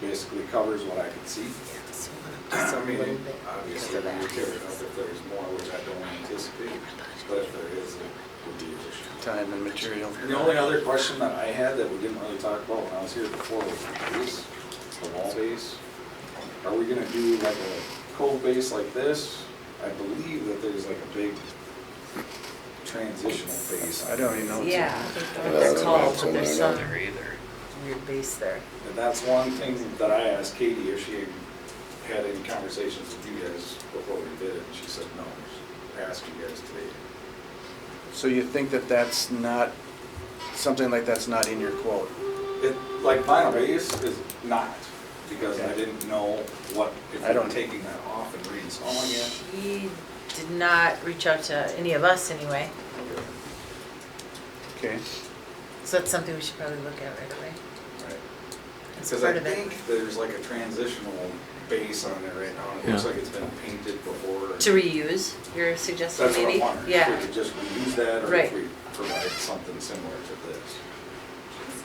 basically covers what I could see. Just I a mean, little bit because obviously, of we would tear that. it up if there's more, which I don't anticipate, but if there is, it would be an issue. time and material. And The only other question that I had that we didn't really talk about when I was here before was the base, the wall base. Are we gonna do like a cove base like this? I believe that there's like a big transitional base. I don't even know. Yeah, I think Yeah, they're that's called, not but in there's some there, no. either. weird base there. And that's one thing that I asked Katie if she had any conversations with you guys before we did it, and she said no. She Asked you guys today. So you think that that's not, something like that's not in your quote? It, like vinyl base is not, because I didn't know what, if I I'm don't- taking that off and reinstalling it. She did not reach out to any of us anyway, Okay. so that's something we should probably look at right away. Right. That's Because part I of it. think there's like a transitional base on there right now, and it looks Yeah. like it's been painted before. To reuse, you're So suggesting That's what I maybe? wondered, if we Yeah. could just reuse that, or if Right. we provide something similar to this.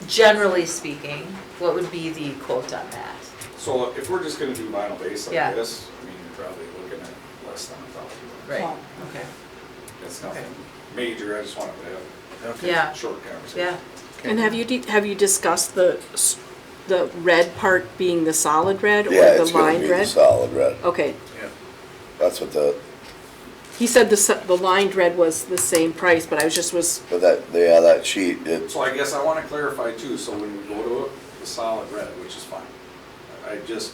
Generally speaking, what would be the quote on that? So if we're just gonna do vinyl base Yeah. like this, I mean, you're probably looking at less than a thousand bucks. Right, Well, okay. It's Okay. nothing major, I just wanted to Okay. Yeah, have a short conversation. yeah. And have you, de- have you discussed the, s- the red part being the solid red or Yeah, the it's gonna be lined the red? Oh. solid red. Okay, Yeah. That's what the, he said the, s- the lined red was the same price, but I was just was, but that, yeah, that sheet, it's, So I guess I wanna clarify too, so when we go to it, the solid red, which is fine. I just,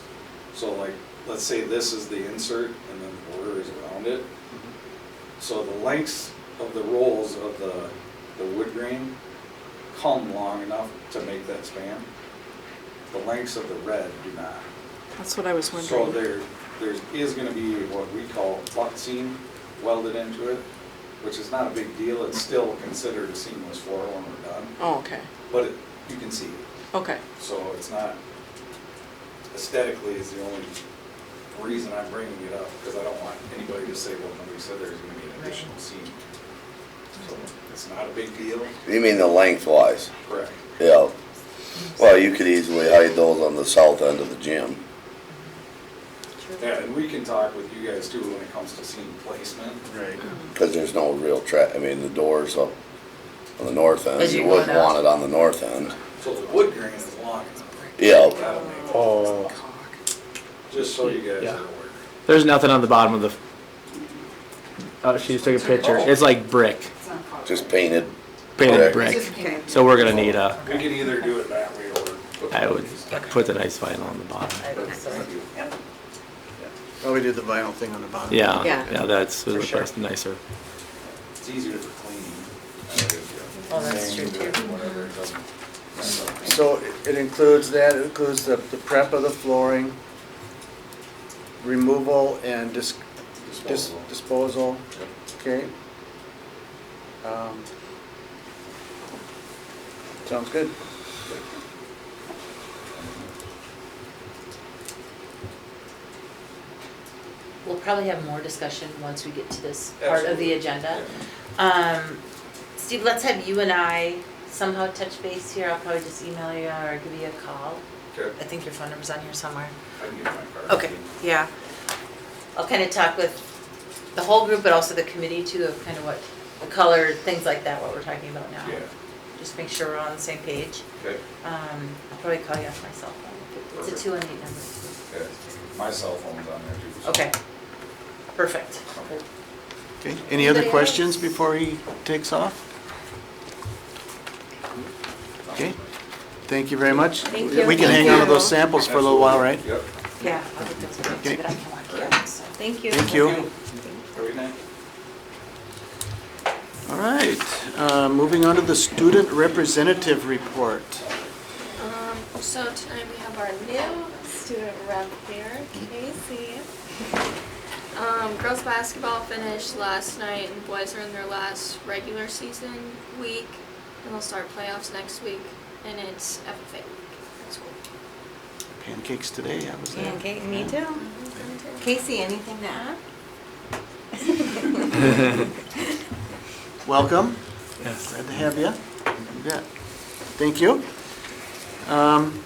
so like, let's say this is the insert and then the border is around it. Mm-hmm. So the lengths of the rolls of the, the wood grain come long enough to make that span. The lengths of the red do not. that's what I was So wondering. there, there is gonna be what we call butt seam welded into it, which is not a big deal, it's still considered a seamless floor when we're done, Oh, okay, but it- you can see it, okay, so it's not, aesthetically is the only reason I'm bringing it up, because I don't want anybody to say, well, nobody said there's gonna be an additional seam. So it's not a big deal, you mean the lengthwise? correct? Yeah. Well, you could easily hide those on the south end of the gym. Yeah, and we can talk with you guys too when it comes to seam placement, Right. Cause there's no real tra, I mean, the doors up on the north end, As you you're going wouldn't want out. it on the north end. so the wood grain is long enough, Yeah, that'll make it. Oh, Just so you guys Yeah. are aware. there's nothing on the bottom of the. Oh, she just took a picture. It's like brick, just painted. painted Correct. brick. So we're gonna need a. We can either do it that way or. put I would these- put the nice vinyl on the bottom. I would say. Well, we did the vinyl thing on the bottom. Yeah, Yeah. yeah, that's For sure. that's nicer. It's easier for cleaning. Oh, that's true too. Whatever, it doesn't mess up. So it- it includes that, it includes the, the prep of the flooring, removal and dis- dis- Disposal. disposal, Yep. okay? Um, Sounds good. We'll probably have more discussion once we get to this part of Absolutely. the agenda. Yeah. Um, Steve, let's have you and I somehow touch base here. I'll probably just email you or give you a call. I Okay, think your phone number's on here somewhere. I can get my card. Okay, yeah. I'll kind of talk with the whole group, but also the committee too, of kind of what, the color, things like that, what we're talking about now. Yeah, Just make sure we're on the same page. okay, Um, I'll probably call you off my cell phone. It's a Perfect. two and eight number. okay. My cell phone's on there too. so- Okay, perfect. Okay, any other Anybody else? questions before he takes off? Okay, thank you very much. Thank you. We can hang on to those samples for a little while, right? Yep. Yeah, I'll get those back to you, but I can walk you out, so thank you. Thank you. Every night. All right, uh, moving on to the student representative report. Um, so tonight we have our new student rep here, Casey. Um, girls basketball finished last night and boys are in their last regular season week and they'll start playoffs next week and it's FFA week at school. Pancakes today, I was there. Okay, me too. Casey, anything to add? Welcome, Yes. glad to have you. You bet. Thank you. Um,